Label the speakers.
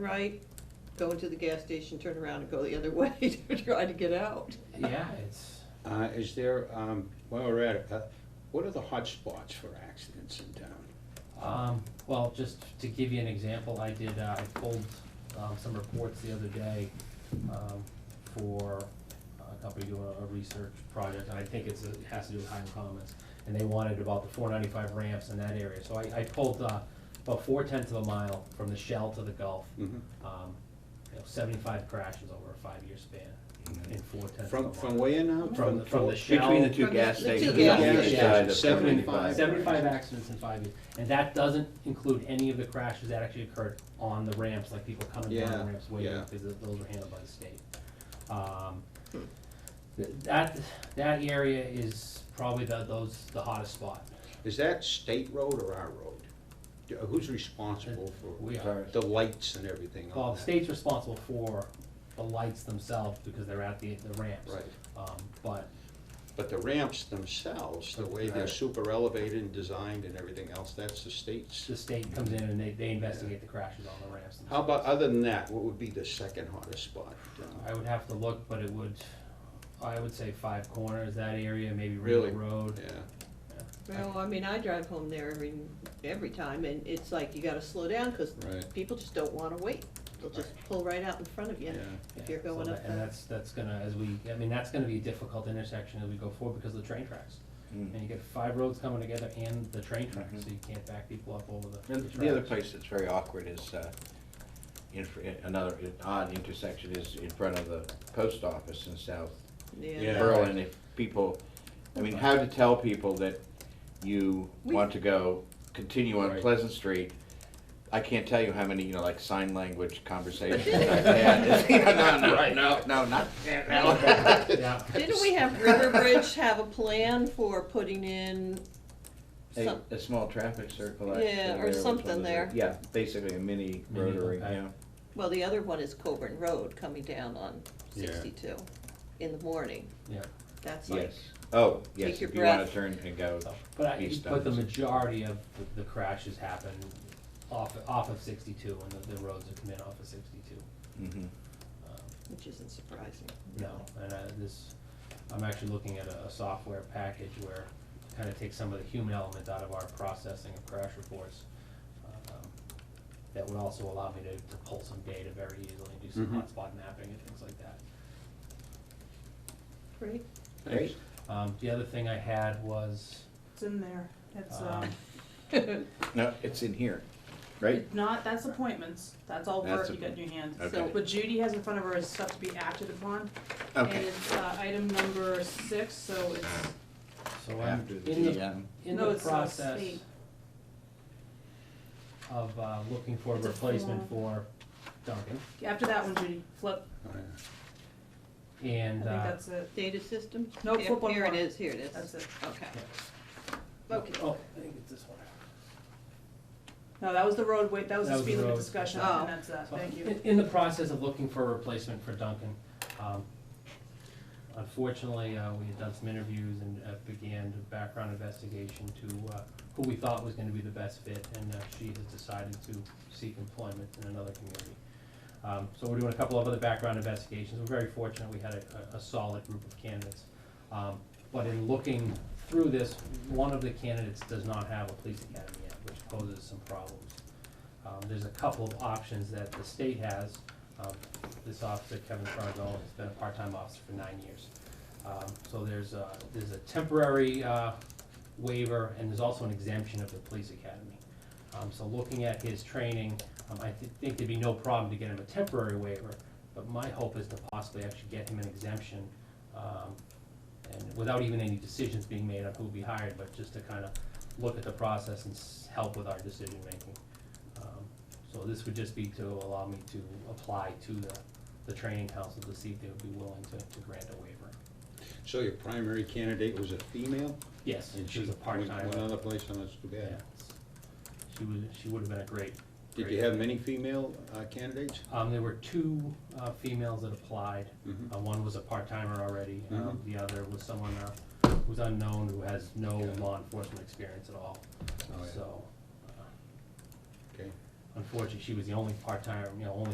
Speaker 1: right, go into the gas station, turn around and go the other way to try to get out.
Speaker 2: Yeah, it's,
Speaker 3: Uh, is there, um, while we're at it, uh, what are the hot spots for accidents in town?
Speaker 2: um, well, just to give you an example, I did, uh, I pulled, um, some reports the other day, um, for uh, a company doing a- a research project, and I think it's, it has to do with Highland Commons. And they wanted about the four ninety-five ramps in that area, so I, I pulled, uh, about four tenths of a mile from the shell to the Gulf.
Speaker 3: Mhm.
Speaker 2: Um, you know, seventy-five crashes over a five-year span in four tenths of a
Speaker 3: Mm-hmm. From,
Speaker 2: mile.
Speaker 3: from where now?
Speaker 2: From, the- from the shell.
Speaker 4: Between the two
Speaker 1: From the-
Speaker 4: gas
Speaker 1: the two
Speaker 4: stations.
Speaker 1: gas
Speaker 4: on each
Speaker 3: stations.
Speaker 4: side of
Speaker 3: Seventy-five.
Speaker 4: 75.
Speaker 2: Seventy-five accidents in five years, and that doesn't include any of the crashes that actually occurred on the ramps, like people coming down
Speaker 3: Yeah,
Speaker 2: the ramps waiting,
Speaker 3: yeah.
Speaker 2: because those were handled by the state. Um, th- That, that area is probably the, those, the hottest spot.
Speaker 3: Is that state road or our road? Do- Who's responsible for
Speaker 2: We are,
Speaker 3: the lights and everything
Speaker 2: well,
Speaker 3: on
Speaker 2: the
Speaker 3: that?
Speaker 2: state's responsible for the lights themselves, because they're at the, the ramps.
Speaker 3: Right,
Speaker 2: Um, but
Speaker 3: but the ramps themselves, the way they're
Speaker 4: Right.
Speaker 3: super elevated and designed and everything else, that's the state's.
Speaker 2: the state comes in and they, they investigate the crashes on the ramps.
Speaker 3: How about,
Speaker 2: themselves.
Speaker 3: other than that, what would be the second hottest spot? Uh,
Speaker 2: I would have to look, but it would, I would say Five Corners, that area, maybe
Speaker 3: Really?
Speaker 2: River Road.
Speaker 3: Yeah,
Speaker 1: Well, I mean, I drive home there every, every time and it's like you gotta slow down because
Speaker 3: right,
Speaker 1: people just don't wanna wait. They'll just pull right out in front of
Speaker 3: yeah,
Speaker 1: you if you're
Speaker 2: Yeah, so
Speaker 1: going
Speaker 2: that-
Speaker 1: up
Speaker 2: And
Speaker 1: that.
Speaker 2: that's, that's gonna, as we, I mean, that's gonna be a difficult intersection as we go forward because of the train tracks.
Speaker 4: Mm.
Speaker 2: And you get five roads coming together and the train tracks,
Speaker 4: Mhm.
Speaker 2: so you can't back people up over the the
Speaker 4: And
Speaker 2: tracks.
Speaker 4: the other place that's very awkward is, uh, in, fr- in- another odd intersection is in front of the post office in South
Speaker 3: Yeah.
Speaker 4: Berlin. If people, I mean, how to tell people that you
Speaker 1: We-
Speaker 4: want to go, continue on
Speaker 3: Right.
Speaker 4: Pleasant Street. I can't tell you how many, you know, like sign language conversations I've had. No, no, no, no, not, no.
Speaker 2: Yeah,
Speaker 1: Didn't we have Riverbridge have a plan for putting in
Speaker 4: A,
Speaker 1: some,
Speaker 4: a small traffic circle.
Speaker 1: Yeah,
Speaker 4: actually,
Speaker 1: or
Speaker 4: there, which
Speaker 1: something
Speaker 4: was a-
Speaker 1: there.
Speaker 4: Yeah, basically a mini
Speaker 2: Mini,
Speaker 4: rotary,
Speaker 2: okay.
Speaker 4: yeah.
Speaker 1: well, the other one is Coburn Road coming down on
Speaker 3: Yeah.
Speaker 1: sixty-two in the morning.
Speaker 2: yeah.
Speaker 1: That's like,
Speaker 4: Yes. Oh, yes,
Speaker 1: Take your
Speaker 4: if you wanna
Speaker 1: breath.
Speaker 4: turn and go.
Speaker 2: So, But I,
Speaker 4: East
Speaker 2: but the
Speaker 4: Downs.
Speaker 2: majority of the- the crashes happen off, off of sixty-two and the, the roads that come in off of sixty-two.
Speaker 4: Mhm.
Speaker 2: Um,
Speaker 1: which isn't surprising.
Speaker 2: No, and uh, this, I'm actually looking at a, a software package where it kind of takes some of the human element out of our processing of crash reports. um, That would also allow me to, to pull some data very easily, and do some
Speaker 4: Mm-hmm.
Speaker 3: Mhm.
Speaker 2: hotspot mapping and things like that.
Speaker 1: Great.
Speaker 3: thanks.
Speaker 2: Um, the other thing I had was,
Speaker 5: It's in there. It's, uh,
Speaker 4: Ah.
Speaker 2: um,
Speaker 4: No, it's in here, right?
Speaker 5: it's not, that's appointments. That's all
Speaker 4: That's
Speaker 5: work you got in your hands.
Speaker 1: Okay.
Speaker 5: So What Judy has in front of her is stuff to be acted upon. And
Speaker 4: Okay.
Speaker 5: it's, uh, item number six, so it's,
Speaker 2: so I'm
Speaker 4: After the
Speaker 2: in the,
Speaker 4: GM.
Speaker 2: in
Speaker 5: No,
Speaker 2: the
Speaker 5: it's, uh,
Speaker 2: process
Speaker 5: state.
Speaker 2: of, uh, looking for a
Speaker 5: It's a
Speaker 2: replacement for Duncan,
Speaker 5: after that one, Judy, flip.
Speaker 3: All right.
Speaker 5: I
Speaker 2: and,
Speaker 5: think
Speaker 2: uh,
Speaker 5: that's it.
Speaker 1: Data system?
Speaker 5: No,
Speaker 1: Here-
Speaker 5: football
Speaker 1: Here it
Speaker 5: one.
Speaker 1: is, here it
Speaker 5: That's
Speaker 1: is.
Speaker 5: it.
Speaker 1: Okay. Okay.
Speaker 2: oh, I think it's this one.
Speaker 5: No, that was the roadway, that was
Speaker 2: That
Speaker 5: the
Speaker 2: was the
Speaker 5: speed limit
Speaker 2: road.
Speaker 5: discussion,
Speaker 1: Oh.
Speaker 5: and that's that. Thank you.
Speaker 2: In, in the process of looking for a replacement for Duncan, um, unfortunately, uh, we had done some interviews and uh, began a background investigation to, uh, who we thought was gonna be the best fit, and, uh, she has decided to seek employment in another community. Um, so we're doing a couple of other background investigations, we're very fortunate, we had a, a- a solid group of candidates. Um, but in looking through this, one of the candidates does not have a police academy yet, which poses some problems. Um, there's a couple of options that the state has. Um, this officer, Kevin Fargo, has been a part-time officer for nine years. Um, so there's a, there's a temporary, uh, waiver, and there's also an exemption of the police academy. Um, so looking at his training, um, I thi- think there'd be no problem to get him a temporary waiver, but my hope is to possibly actually get him an exemption, um, and without even any decisions being made on who'll be hired, but just to kind of look at the process and s- help with our decision-making. Um, So this would just be to allow me to apply to the, the training council to see if they would be willing to, to grant a waiver.
Speaker 3: So your primary candidate was a female?
Speaker 2: Yes,
Speaker 3: and
Speaker 2: she was a
Speaker 3: went-
Speaker 2: part-time.
Speaker 3: Went other place, and that's too
Speaker 2: Yeah.
Speaker 3: bad.
Speaker 2: She was, she would have been a great.
Speaker 3: Did
Speaker 2: great-
Speaker 3: you have many female uh, candidates?
Speaker 2: Um, there were two, uh, females that applied.
Speaker 3: Mhm.
Speaker 2: Uh, one was a part-timer already, um,
Speaker 3: Mhm.
Speaker 2: the other was someone, uh, who's unknown, who has no
Speaker 3: Yeah.
Speaker 2: law enforcement experience at all.
Speaker 3: Oh, yeah.
Speaker 2: So, uh,
Speaker 3: Okay.
Speaker 2: unfortunately, she was the only part-timer, you know, only